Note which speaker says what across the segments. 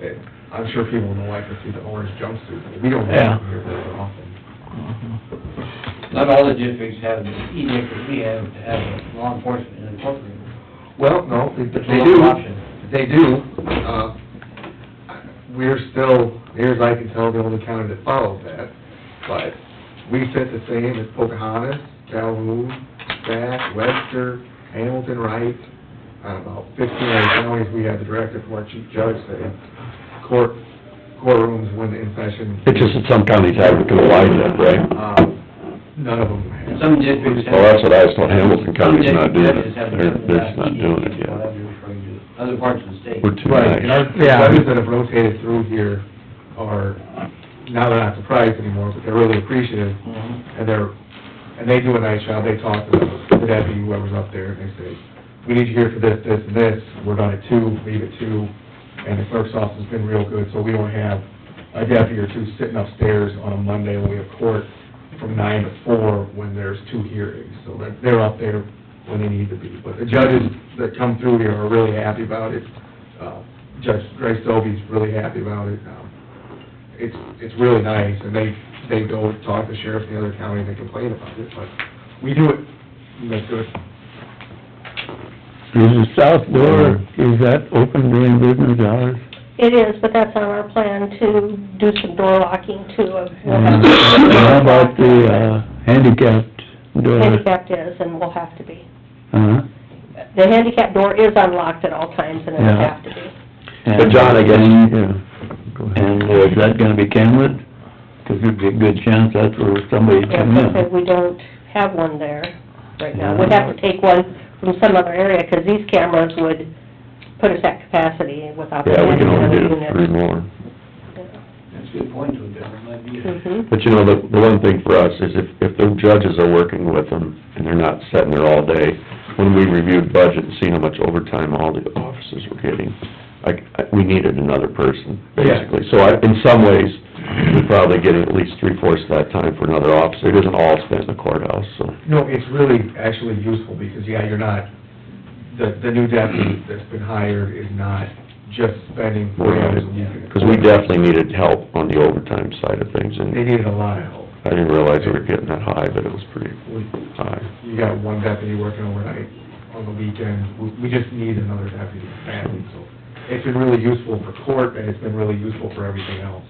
Speaker 1: that, I'm sure people don't like to see the orange jumpsuit. We don't
Speaker 2: Yeah.
Speaker 1: have them here very often.
Speaker 3: Not all the districts have, even if we have, to have law enforcement incorporated.
Speaker 1: Well, no, they
Speaker 3: It's a
Speaker 1: they
Speaker 3: local
Speaker 1: do,
Speaker 3: option.
Speaker 1: they do. Uh, We're still, near as I can tell, the only county that follows that, but we set the same as Pocahontas, Calhoun, Bath, Webster, Hamilton, Wright, on about fifteen other counties, we had the directive from our chief judge saying, court, courtrooms when in session.
Speaker 4: It's just that some counties have it to apply to that, right?
Speaker 1: Um, None of them have.
Speaker 3: Some districts have.
Speaker 4: Well, that's what I was told, Hamilton
Speaker 3: Some
Speaker 4: County's not doing it,
Speaker 3: districts have
Speaker 4: they're,
Speaker 3: different
Speaker 4: they're not doing it
Speaker 3: whatever
Speaker 4: yet.
Speaker 3: you're referring to. Other parts of the state.
Speaker 4: We're too
Speaker 1: Right, and our
Speaker 4: nice.
Speaker 2: Yeah.
Speaker 1: judges that have rotated through here are, now they're not surprised anymore, but they're really appreciative,
Speaker 3: Mhm.
Speaker 1: and they're, and they do a nice job, they talk to the deputy, whoever's up there, and they say, we need you here for this, this, and this, we're done at two, leave at two, and the clerk's office has been real good, so we don't have a deputy or two sitting upstairs on a Monday when we have court from nine to four, when there's two hearings, so they're, they're up there when they need to be, but the judges that come through here are really happy about it, uh, Judge Grace Dobie's really happy about it, um, it's, it's really nice, and they, they go talk to sheriffs in the other counties and complain about it, but we do it, that's good.
Speaker 2: Is the south door, is that open during business hours?
Speaker 5: It is, but that's on our plan to do some door locking too of.
Speaker 2: Um, Mm-hmm. And How about the uh, handicapped door?
Speaker 5: Handicapped is and will have to be.
Speaker 2: Uh-huh.
Speaker 5: The handicap door is unlocked at all times and it'll
Speaker 2: Yeah.
Speaker 5: have to be.
Speaker 4: But John, I guess-
Speaker 2: And, yeah. And, uh, is that gonna be cambered? 'Cause there'd be a good chance that's where somebody
Speaker 5: Yeah,
Speaker 2: come
Speaker 5: but
Speaker 2: in.
Speaker 5: that we don't have one there right now. We'd have to take one from some other area, 'cause these cameras would put us at capacity without the
Speaker 4: Yeah, we can only do
Speaker 5: handicap
Speaker 4: three
Speaker 5: unit.
Speaker 4: more.
Speaker 3: That's a good point to it, that might be.
Speaker 5: Mhm.
Speaker 4: But you know, the, the one thing for us is if, if the judges are working with them and they're not sitting there all day, when we reviewed budget and seen how much overtime all the officers were getting, like, I- we needed another person, basically. So I, in some ways, we're probably getting at least three-fourths of that time for another officer. It isn't all spent in the courthouse, so.
Speaker 1: No, it's really actually useful, because, yeah, you're not, the, the new deputy that's been hired is not just spending forty hours a week. in the
Speaker 4: Because we definitely needed help on the overtime side of things,
Speaker 1: They
Speaker 4: and
Speaker 1: needed a lot of help.
Speaker 4: I didn't realize we were getting that high, but it was pretty
Speaker 1: We-
Speaker 4: high.
Speaker 1: You got one deputy working overnight on the weekend, we, we just need another deputy badly, so. It's been really useful for court, and it's been really useful for everything else.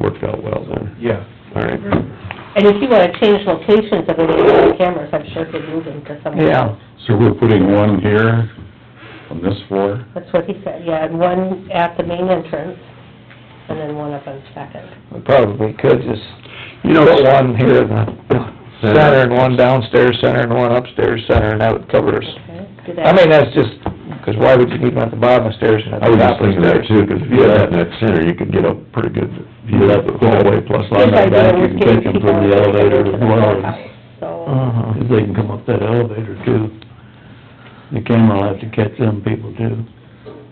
Speaker 4: Worked out well then.
Speaker 1: Yeah,
Speaker 4: All right.
Speaker 5: And if you wanna change locations of any of those cameras, I'm sure could move them to somewhere
Speaker 2: Yeah.
Speaker 5: else.
Speaker 6: So we're putting one here on this floor?
Speaker 5: That's what he said, yeah, and one at the main entrance, and then one up on Second.
Speaker 7: We probably could just
Speaker 4: You know,
Speaker 7: put one here in the center and one downstairs center and one upstairs center, and that would cover us.
Speaker 5: Okay, do that.
Speaker 7: I mean, that's just, because why would you need one at the bottom of stairs and at
Speaker 4: I
Speaker 7: the
Speaker 4: was
Speaker 7: top
Speaker 4: just
Speaker 7: of
Speaker 4: thinking that
Speaker 7: stairs?
Speaker 4: too, 'cause if you had that in that center, you could get a pretty good view of the hallway, plus
Speaker 5: His
Speaker 4: on that
Speaker 5: idea
Speaker 4: back,
Speaker 5: was
Speaker 4: you can
Speaker 5: getting
Speaker 4: take them
Speaker 5: people
Speaker 4: from the
Speaker 5: out
Speaker 4: elevator
Speaker 5: into
Speaker 4: as
Speaker 5: the
Speaker 4: well.
Speaker 5: courthouse, So,
Speaker 2: Uh-huh. 'Cause they can come up that elevator too. The camera will have to catch them people too,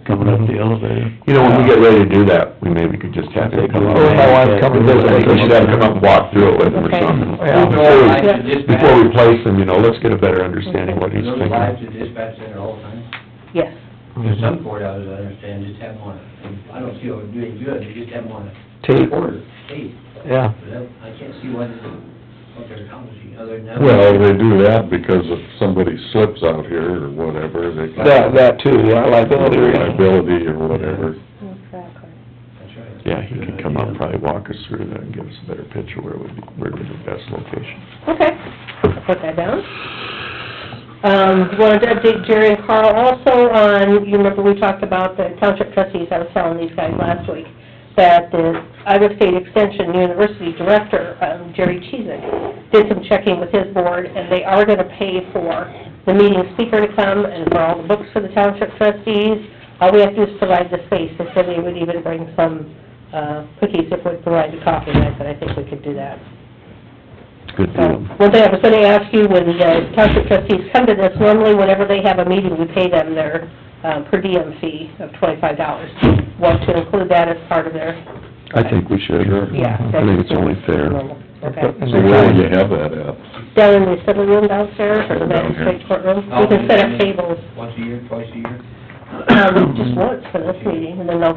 Speaker 2: coming up the elevator.
Speaker 4: You know, when we get ready to do that, we maybe could just have them come up.
Speaker 2: Well, my
Speaker 7: wife come and visit.
Speaker 4: I think we should have them come up and walk through it with them or
Speaker 5: Okay.
Speaker 4: something.
Speaker 7: Yeah.
Speaker 4: Before we-
Speaker 3: Live to dispatch.
Speaker 4: Before we place them, you know, let's get a better understanding what
Speaker 3: Are
Speaker 4: he's
Speaker 3: Those live
Speaker 4: thinking.
Speaker 3: to dispatch center all the time.
Speaker 4: Mm-hmm.
Speaker 5: yes,
Speaker 3: There's some courthouses, I understand, just have one, and I don't see how we're doing good, they just have one.
Speaker 7: Tape.
Speaker 3: Quarter, tape,
Speaker 7: Yeah.
Speaker 3: but I I can't see what, what they're accomplishing, other than that.
Speaker 6: Well, they do that because if somebody slips out here or whatever, they.
Speaker 7: That, that too, yeah, liability.
Speaker 6: Liability or whatever.
Speaker 5: exactly.
Speaker 3: That's right.
Speaker 4: Yeah, he could come up, probably walk us through that and give us a better picture where would be, where would be the best location.
Speaker 5: Okay, I'll put that down. Um, wanted to update Jerry and Carl also on, you remember we talked about the township trustees, I was telling these guys last week, that the Iowa State Extension University Director, um, Jerry Cheezick, did some checking with his board, and they are gonna pay for the meeting speaker to come and for all the books for the township trustees. All we have to do is provide the space, they said they would even bring some, uh, cookies if we provide the coffee, and I said, I think we could do that.
Speaker 4: Good
Speaker 5: So,
Speaker 4: deal.
Speaker 5: One thing I was gonna ask you, when the uh, township trustees come to this, normally whenever they have a meeting, we pay them their, um, per diem fee of twenty-five dollars. Want to include that as part of their,
Speaker 4: I think we should.
Speaker 5: yeah.
Speaker 4: I think it's only fair.
Speaker 5: normal, Okay.
Speaker 6: So where would you have that at?
Speaker 5: Down in the assembly room downstairs, or the
Speaker 6: Down here.
Speaker 5: magistrate courtroom,
Speaker 3: Oh,
Speaker 5: we can set up tables,
Speaker 3: Once a year, twice a year?
Speaker 5: um, just once for this meeting, and then they'll